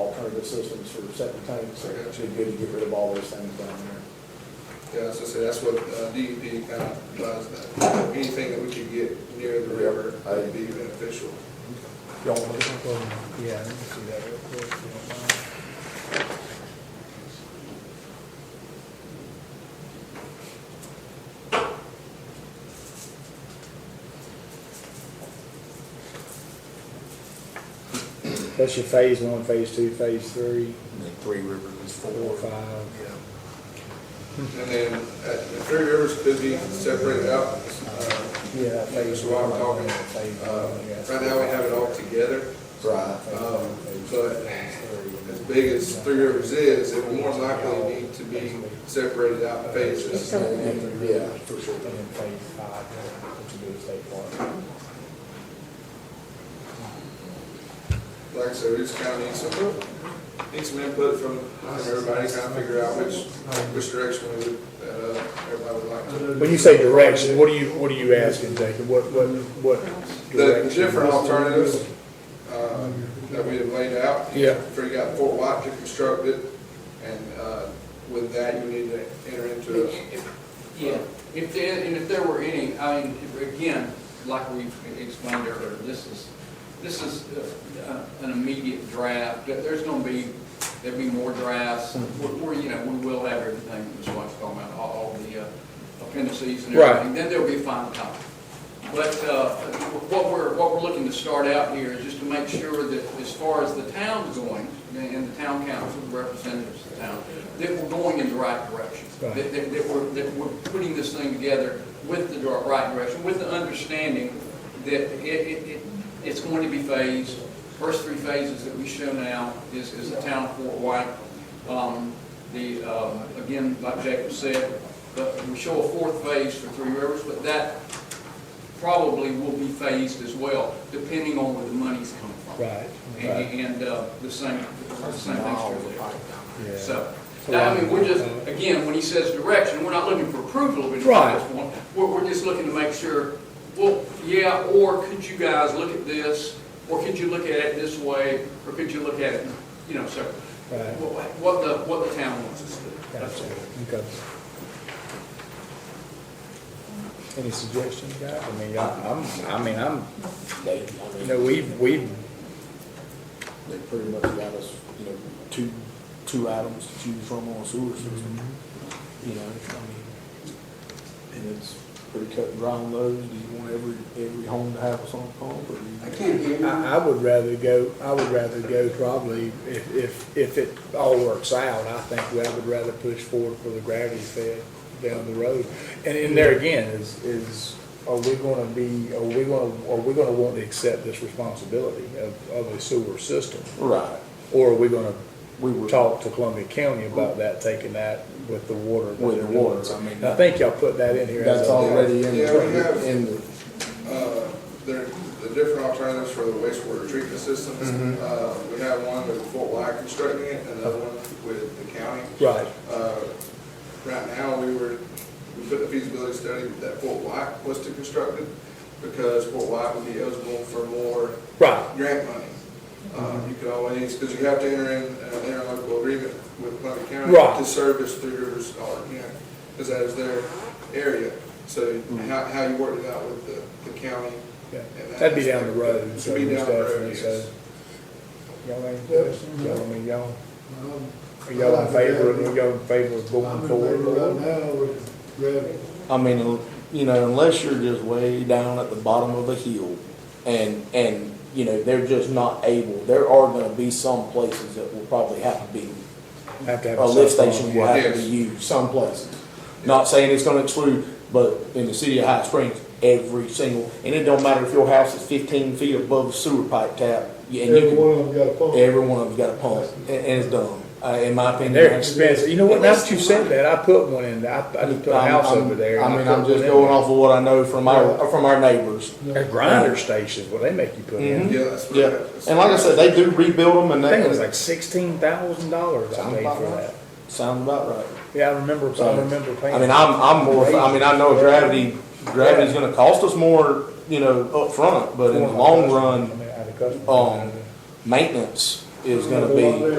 the systems for septic tanks, so it should be good to get rid of all those things down there. Yeah, so, so that's what uh, DEP kind of does, that anything that we could get near the river would be beneficial. Y'all want to- Yeah, let me see that real quick, if you don't mind. That's your phase one, phase two, phase three, And then Three Rivers is four, four. five. Yeah. And then, uh, the three rivers could be separated out. uh, Yeah, that phase. So I'm one, talking, phase one, uh, I guess. Right now, we have it all together, Right. um, but as big as Three Rivers is, it will more likely need to be separated out in phases. So- Yeah, for sure. And then phase five, which would be the state park. Like I said, we just kind of need some, need some input from from everybody, kind of figure out which, which direction we would, uh, everybody would like to. When you say direction, what are you, what are you asking, Jacob? What, what, what? The the direction? different alternatives uh, that we have laid out. Yeah. Figure out Fort White to construct it, and uh, with that, you need to enter into a If- Yeah, if there, and if there were any, I mean, if- again, like we explained earlier, this is, this is uh, uh, an immediate draft, There- there's gonna be, there'll be more drafts, we're, we're, you know, we will have everything that Ms. White's talking about, all, all the uh, appendices and Right. everything, then there'll be a final copy. But, uh, what we're, what we're looking to start out here is just to make sure that as far as the town's going, and the town council, the representatives of the town, that we're going in the right direction. Right. That, that, that we're, that we're putting this thing together with the dir- right direction, with the understanding that it, it, it, it's going to be phased. First three phases that we show now is, is the town of Fort White. Um, the, um, again, like Jacob said, the, we show a fourth phase for Three Rivers, but that probably will be phased as well, depending on where the money's coming from. Right, right. And, and, uh, the same, the same thing's Mile true of the there. pipe down Yeah. So, I mean, we're just, again, when he says direction, we're not looking for approval of it at this Right. point. We're, we're just looking to make sure, well, yeah, or could you guys look at this? Or could you look at it this way? Or could you look at it, you know, so, Right. what, what the, what the town wants us to do. That's Gotcha, all. okay. Any suggestions, guys? I mean, I- I'm, I mean, I'm, They, I you mean, know, we've, we've, they pretty much got us, you know, two, two items to choose from on a sewer system. You know, I mean, and it's pretty cut and dry on those. Do you want every, every home to have a sump pump or do you? I, I would rather go, I would rather go probably, if, if, if it all works out, I think I would rather push forward for the gravity fed down the road. And, and there again, is, is, are we gonna be, are we gonna, are we gonna want to accept this responsibility of, of a sewer system? Right. Or are we gonna We were. talk to Columbia County about that, taking that with the water. that With the they're doing. waters, I mean, I think y'all put that in here. as That's a- already in Yeah, we have- the, in the. Uh, There, the different alternatives for the wastewater treatment systems. Mm-hmm. Uh, We have one with Fort White constructing it, and another one with the county. Right, Uh, Right now, we were, we put a feasibility study that Fort White was to construct it, because Fort White would be eligible for more right, grant money. Uh, You could always, because you have to enter in an interlocal agreement with Columbia County Right. to service Three Rivers, or, you know, because that is their area. So how, how you work it out with the, the county. Mm-hmm. yeah. and that That'd be aspect. down the road, so It'd be most down the definitely, road, so. yes. Y'all any questions? Y'all, I mean, y'all, are y'all in favor, of- y'all in favor of I'm going in favor right forward? now with gravity. I mean, you know, unless you're just way down at the bottom of a hill and, and, you know, they're just not able, there are gonna be some places that will probably have to be, Have to have a lift station will Yeah. have to be used, some places. Not saying it's gonna exclude, but in the city of Hot Springs, every single, and it don't matter if your house is fifteen feet above the sewer pipe tap, you- and Every you one of them got a can, phone. every one of them's got a pump, and, and it's dumb, uh, in my opinion. And they're expensive, you know what, now that you said that, I put one in, I, I just put a I'm- house I'm- over there. and I mean, put I'm one just in going there. off of what I know from our, from our neighbors. A grinder station, what they make you put Mm-hmm. in, Yeah, that's what. Yeah, and like I said, they do rebuild them and I that. think it was like sixteen thousand dollars I Sounds paid about for right. that. Sounds about right. Yeah, I remember, I So, remember paying. I mean, I'm, I'm more, I mean, I know gravity, gravity's gonna cost us more, you know, up front, but in the long run, I mean, out of customer- um, maintenance is gonna be.